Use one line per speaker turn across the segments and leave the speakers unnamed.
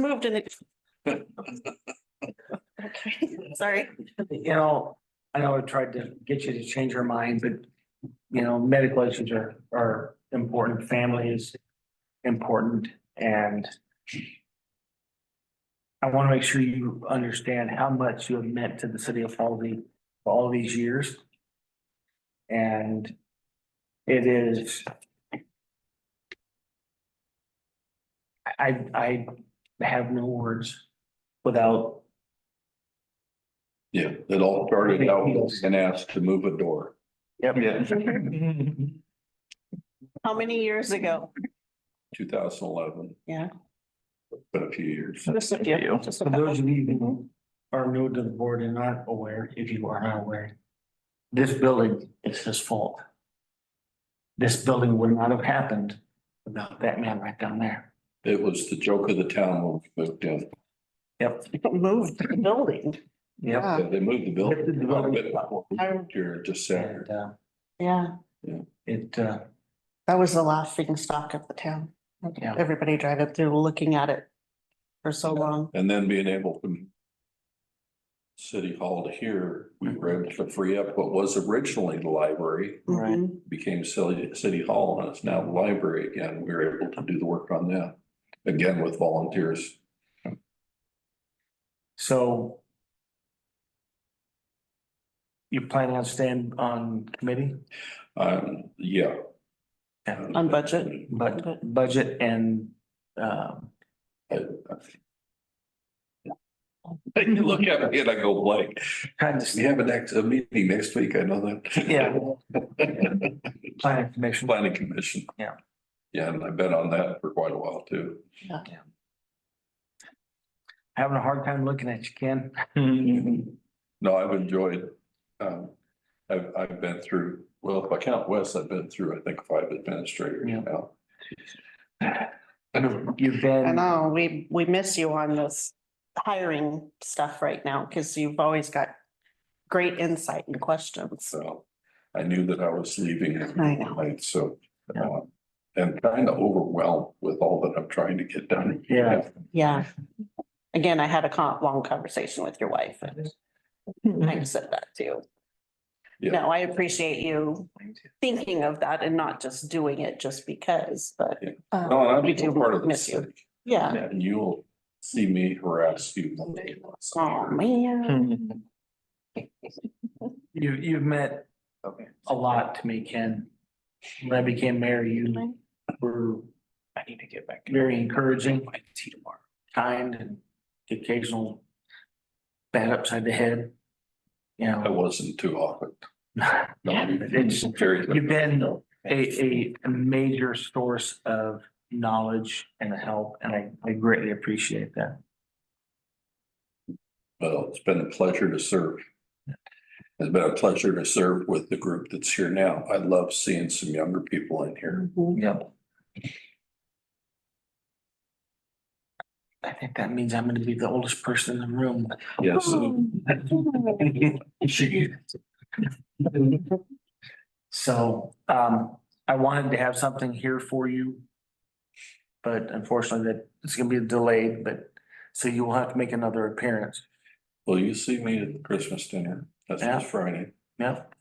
moved in the. Okay, sorry.
you know, I know I tried to get you to change your mind, but, you know, medical issues are, are important, family is important, and I want to make sure you understand how much you have meant to the city of Halsey for all these years. And it is I, I I have no words without
Yeah, it all started out with an ask to move a door.
Yep.
How many years ago?
Two thousand eleven.
Yeah.
But a few years.
Just a few, just a
For those
couple.
of you who are new to the board and not aware, if you are not aware, this building is his fault. This building would not have happened without that man right down there.
It was the joke of the town when we moved in.
Yep.
Moved the building. Ah.
Yep.
Yeah, They moved the
Lifted the building
building.
up.
I-
Here just
And,
Saturday.
uh,
Yeah,
it, uh,
that was the laughing stock of the town.
Yeah.
Everybody driving through looking at it for so long.
And then being able to city hall to here, we were able to free up what was originally the library,
Right.
Mhm.
became city, city hall, and it's now the library again. We were able to do the work on that. Again, with volunteers.
so you plan on staying on committee,
Um, yeah. Um,
Yeah.
On budget?
but budget and, um,
Take a look at it, I go blank.
kind of,
We have a next, a meeting next week, I know that.
yeah, planning commission.
Planning commission.
Yeah.
Yeah, and I've been on that for quite a while too.
Having a hard time looking at you, Ken.
No, I've enjoyed, um, I've, I've been through, well, if I count Wes, I've been through, I think, five administrators
Yeah.
now.
You've
I
been,
know, oh, we, we miss you on this hiring stuff right now because you've always got great insight and questions.
So I knew that I was leaving
I know.
tonight, so. um, And kind of overwhelmed with all that I'm trying to get done.
Yeah.
Yeah. Again, I had a con- long conversation with your wife and I said that too.
Yeah.
No, I appreciate you thinking of that and not just doing it just because, but.
Yeah.
uh,
No, and
We
I'm still
do
part of the
miss you.
city,
Yeah.
and you'll see me harass you. one day.
Oh, man.
You, Hmm. you've meant a lot to me, Ken. When I became mayor, you were. I need to get back. Very encouraging. I can see tomorrow. Kind and the occasional bat upside the head. You
I
know.
wasn't too often. No,
It's-
very-
You've been a, a, a major source of knowledge and help, and I, I greatly appreciate that.
Well, it's been a pleasure to serve. It's been a pleasure to serve with the group that's here now. I love seeing some younger people in here.
Mhm.
Yep. I think that means I'm gonna be the oldest person in the room.
Yes,
So, um, I wanted to have something here for you. But unfortunately, that it's gonna be delayed, but, so you will have to make another appearance.
will you see me at the Christmas dinner? That's
Yeah.
this Friday.
Yep.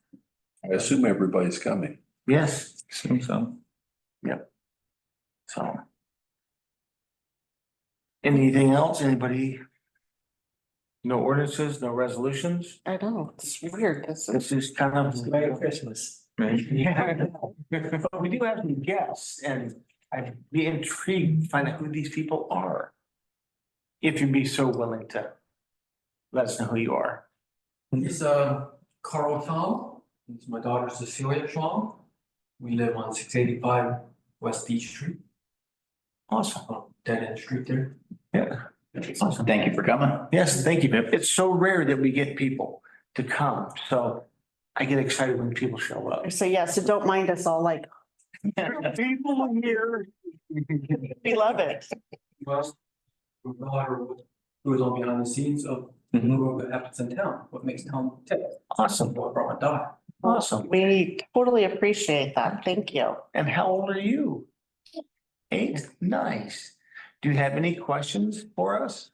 I assume everybody's coming.
Yes.
so.
So. Anything else, anybody? No ordinances, no resolutions?
I know, it's weird. This is.
This is kind of.
Merry Christmas.
Yeah. But we do have some guests and I'd be intrigued to find out who these people are. If you'd be so willing to let us know who you are.
It's uh Carl Tom, it's my daughter Cecilia Tom. We live on six eighty-five West D Street,
Awesome.
uh, dead end street there.
Yeah.
Awesome, thank you for coming.
Yes, thank you. Pip. It's so rare that we get people to come, so I get excited when people show up.
So yeah, so don't mind us all like,
People here.
we love it.
Well, we know how to- who is on behind the scenes of what happens in town, what makes town tick,
Awesome,
what brought my daughter.
awesome.
We totally appreciate that. Thank you.
And how old are you? Eight, nice. Do you have any questions for us?